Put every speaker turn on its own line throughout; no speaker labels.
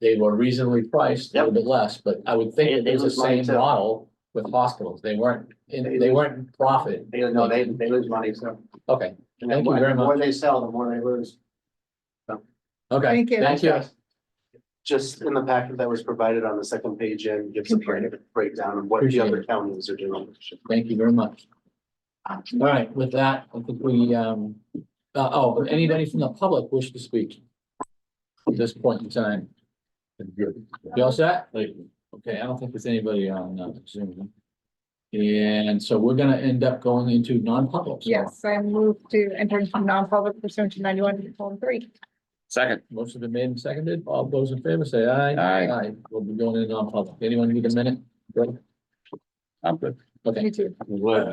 They were reasonably priced, a little bit less, but I would
Yeah,
think
they
it was the
lose money
same
too.
model with hospitals. They weren't,
They
in they
lose-
weren't profit.
They, no, they, they lose money, so.
Okay,
And then
Thank you
the
very
More
much.
they sell, the more they lose.
okay.
Thank you.
Thank you.
Just in the packet that was provided on the second page and gives a break- breakdown of what the
Appreciate
other counties are doing.
Thank you very much. All right, with that, I think we, um, uh, oh, but anybody from the public wish to speak? At this point in time. You all set? Okay, I don't think there's anybody on uh, Zoom. And so we're gonna end up going into non-public. so
Yes, I move to enter into non-public pursuant to ninety-one, colon, three.
Second.
Motion been made and seconded. All those in favor say aye.
Aye.
Aye. We'll be going into non-public. Anyone need a minute? Good.
I'm good.
Okay,
You too.
we're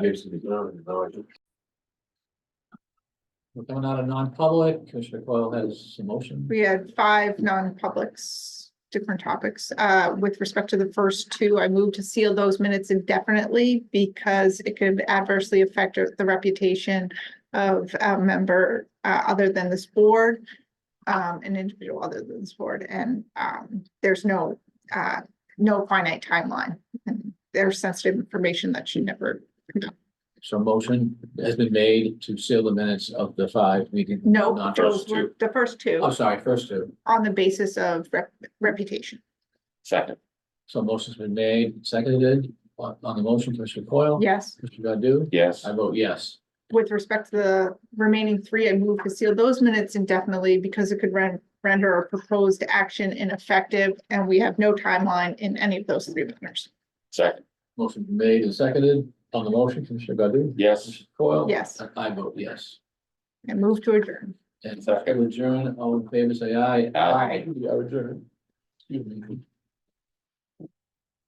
coming out of non-public. Commissioner Coyle has a motion.
We had five non-publics, different topics. Uh, with respect to the first two, I moved to seal those minutes indefinitely because it could adversely affect the reputation of a member, uh, other than this board, um, an individual other than this board, and, um, there's no, uh, no finite timeline. And there's sensitive information that should never,
So motion has been made to seal the minutes of the five meeting.
no,
not
those
first
were
two.
the first two.
I'm sorry, first two.
on the basis of rep- reputation.
Second.
So motion's been made, seconded on on the motion, Commissioner Coyle.
Yes,
Commissioner Godu?
Yes.
I vote yes.
with respect to the remaining three, I move to seal those minutes indefinitely because it could ren- render a proposed action ineffective, and we have no timeline in any of those three matters.
Second.
Motion been made and seconded on the motion, Commissioner Godu?
Yes.
Commissioner Coyle?
Yes.
I vote yes.
And move to adjourn.
And second adjourn, all in favor, say aye.
Aye.
We are adjourned. Excuse me.